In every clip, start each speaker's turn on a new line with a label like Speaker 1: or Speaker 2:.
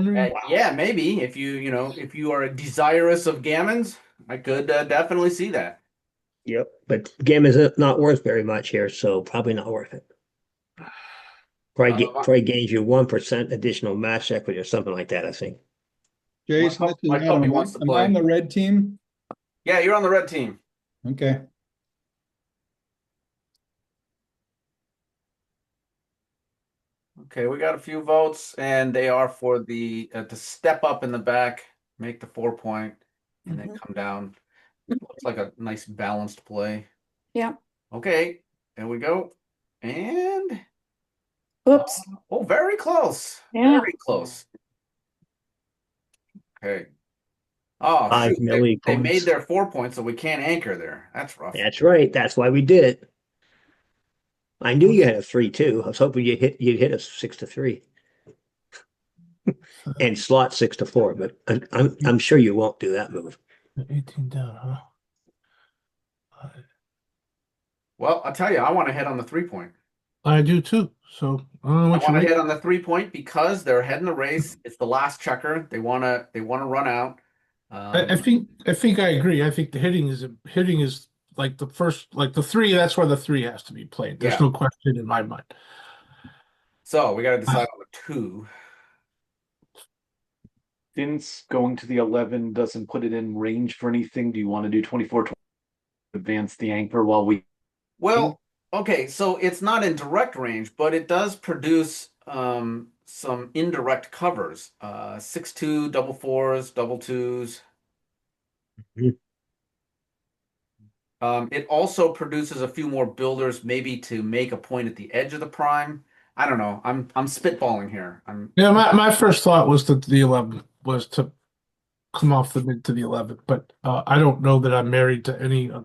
Speaker 1: Uh,
Speaker 2: wondering.
Speaker 1: yeah, maybe if you you know if you are desirous of gammons, I could uh, definitely see that.
Speaker 3: Yep, but Gamma's not worth very much here, so probably not worth it. Probably, ga-
Speaker 1: Uh, I-
Speaker 3: probably gains you one percent additional match equity or something like that, I think.
Speaker 2: Jason,
Speaker 1: pup-
Speaker 2: this is
Speaker 1: my
Speaker 2: Adam.
Speaker 1: puppy
Speaker 2: Am I-
Speaker 1: wants to
Speaker 2: am I on
Speaker 1: play.
Speaker 2: the red team?
Speaker 1: Yeah, you're on the red team.
Speaker 2: Okay,
Speaker 1: Okay, we got a few votes, and they are for the uh, to step up in the back, make the four point, and then come down. Looks like a nice balanced play.
Speaker 4: Yeah.
Speaker 1: Okay, there we go, and
Speaker 4: Oops,
Speaker 1: oh, very close.
Speaker 4: Yeah.
Speaker 1: Very close. Okay. Oh,
Speaker 3: Five
Speaker 1: shoot, they-
Speaker 3: milli
Speaker 1: they made
Speaker 3: points.
Speaker 1: their four points, so we can't anchor there. That's
Speaker 5: Uh,
Speaker 1: rough.
Speaker 3: That's right. That's why we did it. I knew you had a three two. I was hoping you hit you'd hit us six to three. and slot six to four, but I'm, I'm I'm sure you won't do that move.
Speaker 5: Eighteen down, huh? I-
Speaker 1: Well, I'll tell you, I want to head on the three point.
Speaker 5: I do too, so I don't know
Speaker 1: I
Speaker 5: what you
Speaker 1: want to
Speaker 5: make.
Speaker 1: hit on the three point because they're heading the race. It's the last checker. They wanna they wanna run out.
Speaker 5: I, I
Speaker 1: Um,
Speaker 5: think, I think I agree. I think the hitting is, hitting is like the first, like the three, that's where the three has to be played. There's
Speaker 1: Yeah.
Speaker 5: no question in my mind.
Speaker 1: so we gotta decide
Speaker 6: Uh,
Speaker 1: on the two.
Speaker 6: Since going to the eleven doesn't put it in range for anything, do you want to do 24 tw- Advance the anchor while we
Speaker 1: Well, okay, so it's not in direct range, but it does produce um some indirect covers. Uh six two, double fours, double twos.
Speaker 6: Mm-hmm.
Speaker 3: Mhm.
Speaker 1: Um, it also produces a few more builders, maybe to make a point at the edge of the prime. I don't know. I'm I'm spitballing here. I'm
Speaker 5: Yeah, my, my first thought was that the eleven was to come off the mid to the eleven, but, uh, I don't know that I'm married to any. uh,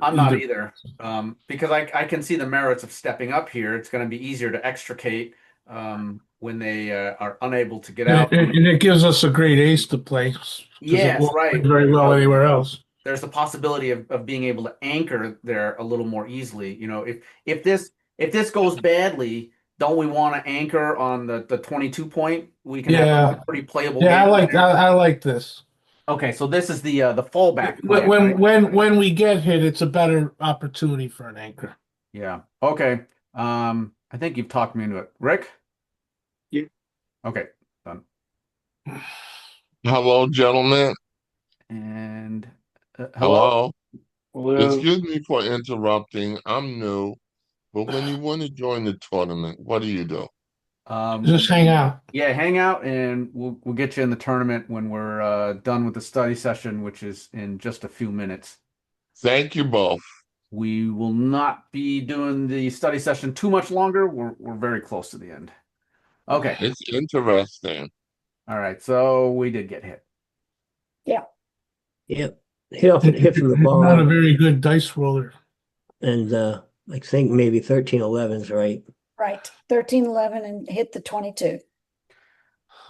Speaker 1: I'm not
Speaker 5: either.
Speaker 1: either, um, because I, I can see the merits of stepping up here. It's going to be easier to extricate um, when they uh, are unable to get out.
Speaker 5: And, and- and it gives us a great ace to play. 'cause it
Speaker 1: Yes,
Speaker 5: won't play
Speaker 1: right.
Speaker 5: Very well anywhere else.
Speaker 1: There's the possibility of, of being able to anchor there a little more easily. You know, if if this if this goes badly, don't we want to anchor on the, the 22 point? We can have
Speaker 5: Yeah.
Speaker 1: a pretty playable.
Speaker 5: Yeah, I
Speaker 1: game
Speaker 5: like,
Speaker 1: there.
Speaker 5: I, I like this.
Speaker 1: Okay, so this is the uh, the fallback.
Speaker 5: When,
Speaker 1: plan, right?
Speaker 5: when, when, when we get hit, it's a better opportunity for an anchor.
Speaker 1: Yeah. Okay. Um, I think you've talked me into it, Rick.
Speaker 6: Yeah.
Speaker 1: Okay.
Speaker 7: Hello, gentlemen.
Speaker 1: And uh,
Speaker 7: Hello.
Speaker 6: Hello?
Speaker 7: Excuse me for interrupting. I'm new, but when you want to join the tournament, what do you do?
Speaker 1: Um,
Speaker 5: Just hang out.
Speaker 1: yeah, hang out, and we'll we'll get you in the tournament when we're uh, done with the study session, which is in just a few minutes.
Speaker 7: Thank you both.
Speaker 1: We will not be doing the study session too much longer. We're we're very close to the end. Okay.
Speaker 7: It's interesting.
Speaker 1: All right. So we did get hit.
Speaker 3: Yep. Hit off hit from the
Speaker 5: Not a
Speaker 3: ball
Speaker 5: very good dice roller.
Speaker 3: and uh I think maybe thirteen eleven's right.
Speaker 4: right, thirteen, eleven and hit the twenty-two.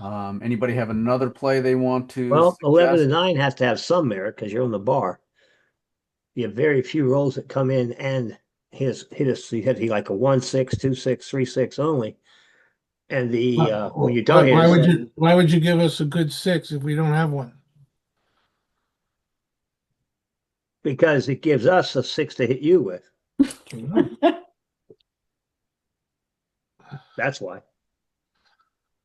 Speaker 1: Um, anybody have another play they want to?
Speaker 3: Well, eleven and
Speaker 1: suggest?
Speaker 3: nine has to have some merit because you're on the bar. You have very few rolls that come in and hit us, hit us, you hit like a one, six, two, six, three, six only. And the, uh, when you don't
Speaker 5: Why-
Speaker 3: hit
Speaker 5: Why would
Speaker 3: us,
Speaker 5: you, why would you give us a good six if we don't have one?
Speaker 3: because it gives us a six to hit you with. That's why.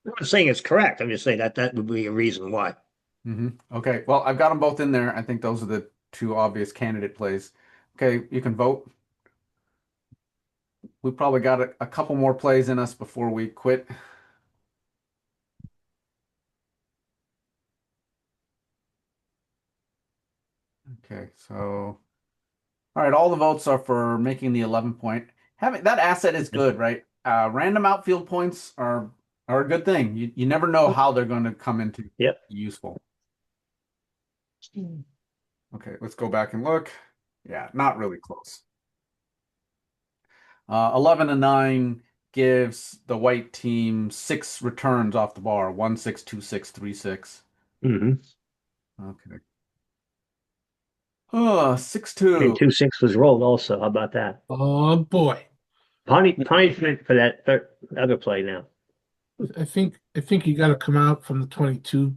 Speaker 3: I'm not saying it's correct. I'm just saying that that would be a reason why.
Speaker 1: hmm Okay. Well, I've got them both in there. I think those are the two obvious candidate plays. Okay, you can vote. We probably got a, a couple more plays in us before we quit. Okay, so all right, all the votes are for making the 11 point. Having that asset is good, right? Uh, random outfield points are are a good thing. You you never know how they're going to come into
Speaker 3: Yep.
Speaker 1: useful. Okay, let's go back and look. Yeah, not really close. Uh, 11 and 9 gives the white team six returns off the bar one, six, two, six, three, six.
Speaker 3: Mm-hmm.
Speaker 1: Okay. Oh, six, two.
Speaker 3: And two, six was rolled also. How about that?
Speaker 5: Oh, boy.
Speaker 3: Puni- Punishment for that thir- other play now.
Speaker 5: I think, I think you gotta come out from the twenty-two